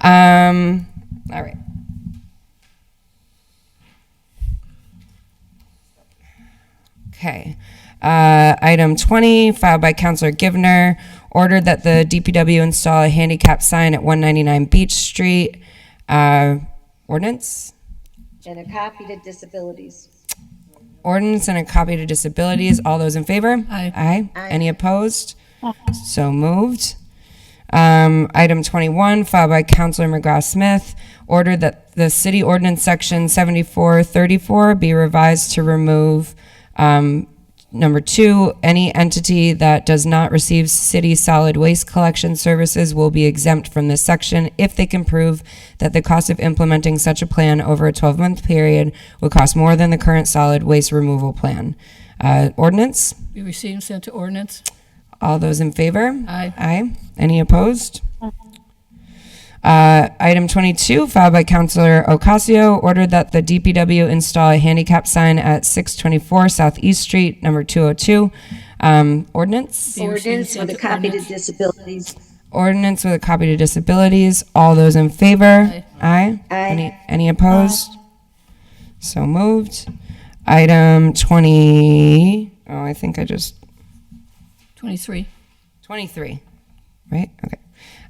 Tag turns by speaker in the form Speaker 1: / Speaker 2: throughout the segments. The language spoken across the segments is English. Speaker 1: Um, all right. Okay. Uh, item 20, filed by Counselor Givner, ordered that the DPW install a handicap sign at 199 Beach Street. Uh, ordinance?
Speaker 2: and a copy to disabilities.
Speaker 1: Ordinance and a copy to disabilities. All those in favor?
Speaker 3: Aye.
Speaker 1: Aye. Any opposed? So moved. Um, item 21, filed by Counselor McGrath Smith, ordered that the city ordinance section 7434 be revised to remove um, number two, any entity that does not receive city solid waste collection services will be exempt from this section if they can prove that the cost of implementing such a plan over a 12 month period would cost more than the current solid waste removal plan. Uh, ordinance?
Speaker 3: Be received and sent to ordinance.
Speaker 1: All those in favor?
Speaker 3: Aye.
Speaker 1: Aye. Any opposed? Uh, Item 22, filed by Counselor Ocasio, ordered that the DPW install a handicap sign at 624 Southeast Street, number 202. Um, Ordinance?
Speaker 3: Be received and
Speaker 2: Ordinance
Speaker 3: sent
Speaker 2: with a
Speaker 3: to
Speaker 2: copy to
Speaker 3: ordinance.
Speaker 2: disabilities.
Speaker 1: Ordinance with a copy to disabilities. All those in favor? Aye. Any, any opposed? So moved. Item 20, oh, I think I just
Speaker 3: 23.
Speaker 1: 23, right? Okay.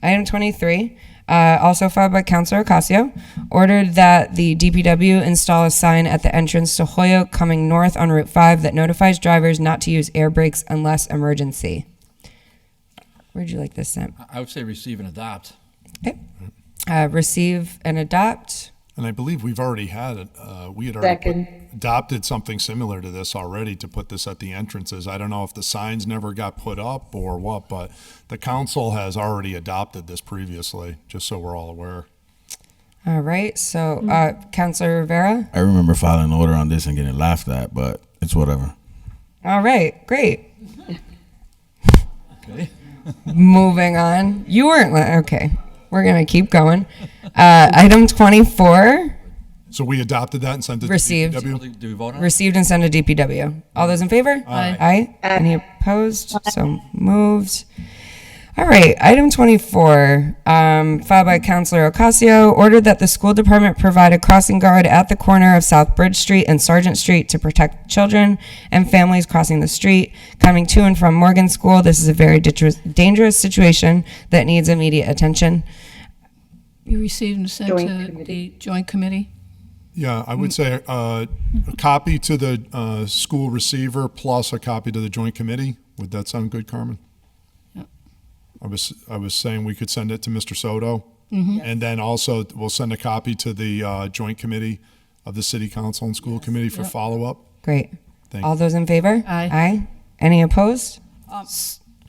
Speaker 1: Item 23, uh, also filed by Councilor Ocasio, ordered that the DPW install a sign at the entrance to Hoyoke coming north on Route 5 that notifies drivers not to use air brakes unless emergency. Where'd you like this sent?
Speaker 4: I would say receive and adopt.
Speaker 1: Okay. Uh, receive and adopt.
Speaker 5: And I believe we've already had, it, uh, we had already put- adopted something similar to this already to put this at the entrances. I don't know if the signs never got put up or what, but the council has already adopted this previously, just so we're all aware.
Speaker 1: All right. So, uh, Councilor Rivera.
Speaker 6: I remember filing an order on this and getting laughed at, but it's whatever.
Speaker 1: All right. Great.
Speaker 4: Okay.
Speaker 1: Moving on. You weren't. li- Okay. We're going to keep going. Uh, item 24.
Speaker 5: So we adopted that and sent it to
Speaker 1: Received.
Speaker 5: DPW?
Speaker 4: Do we vote on it?
Speaker 1: Received and sent to DPW. All those in favor?
Speaker 3: Aye.
Speaker 1: Aye. Any opposed? So moved. All right, item 24, um, filed by Counselor Ocasio, ordered that the school department provide a crossing guard at the corner of South Bridge Street and Sergeant Street to protect children and families crossing the street, coming to and from Morgan School. This is a very ditru- dangerous situation that needs immediate attention.
Speaker 3: Be received and sent
Speaker 2: Joint
Speaker 3: to the joint committee.
Speaker 5: Yeah, I would say uh, a copy to the uh, school receiver plus a copy to the joint committee. Would that sound good, Carmen?
Speaker 3: Yep.
Speaker 5: I was, I was saying we could send it to Mr. Soto. And then also we'll send a copy to the uh, joint committee of the city council and school committee for follow-up.
Speaker 1: Great.
Speaker 5: Thank
Speaker 1: All those in favor?
Speaker 3: Aye.
Speaker 1: Aye. Any opposed?
Speaker 7: Um,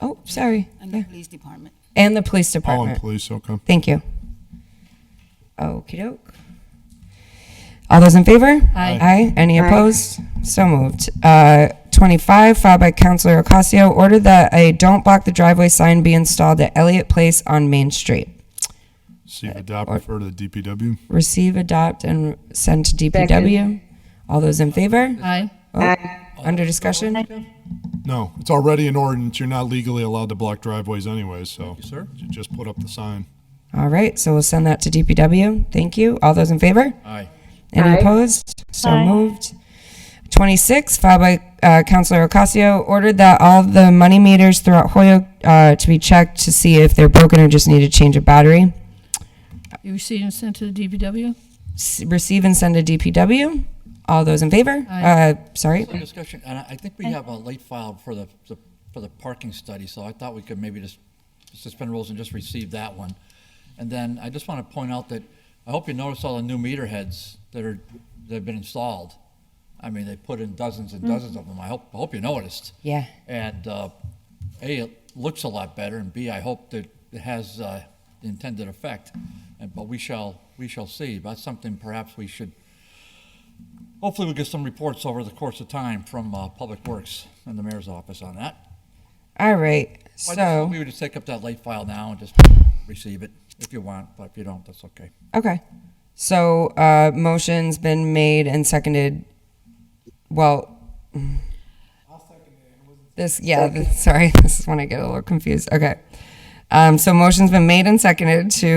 Speaker 1: Oh, sorry.
Speaker 7: and the police department.
Speaker 1: And the police
Speaker 5: Oh, and
Speaker 1: department.
Speaker 5: police, okay.
Speaker 1: Thank you. Okey doke. All those in favor?
Speaker 3: Aye.
Speaker 1: Aye. Any opposed? So moved. Uh, 25, filed by Counselor Ocasio, ordered that a don't block the driveway sign be installed at Elliott Place on Main Street.
Speaker 5: See if adopt, refer to the DPW.
Speaker 1: Receive, adopt, and send to DPW. All those in favor? Oh,
Speaker 3: Aye.
Speaker 1: Under discussion?
Speaker 5: No, it's already an ordinance. You're not legally allowed to block driveways anyways, so.
Speaker 4: you, sir.
Speaker 5: you Just put up the sign.
Speaker 1: All right, so we'll send that to DPW. Thank you. All those in favor?
Speaker 4: Aye.
Speaker 1: Any opposed? So moved. 26, filed by uh, Counselor Ocasio, ordered that all the money meters throughout Hoyoke uh, to be checked to see if they're broken or just need to change a battery.
Speaker 3: Be received and sent to the DPW.
Speaker 1: S- Receive and send to DPW. All those in favor? Uh, Sorry,
Speaker 4: Any Discussion, and I I think we have a late file for the, the- for the parking study, so I thought we could maybe just suspend rules and just receive that one. And then I just want to point out that, I hope you notice all the new meter heads that are, that have been installed. I mean, they put in dozens and dozens of them. I hope, I hope you noticed.
Speaker 1: Yeah.
Speaker 4: And uh, A, it looks a lot better, and B, I hope that it has uh, the intended effect. And, but we shall, we shall see. That's something perhaps we should, hopefully we get some reports over the course of time from uh, Public Works and the mayor's office on that.
Speaker 1: all right,
Speaker 4: I just-
Speaker 1: so,
Speaker 4: We would just take up that late file now and just receive it if you want, but if you don't, that's okay.
Speaker 1: okay. So, uh, motion's been made and seconded, well, mm. this, yeah, this- sorry, this is when I get a little confused, okay. Um, So motion's been made and seconded to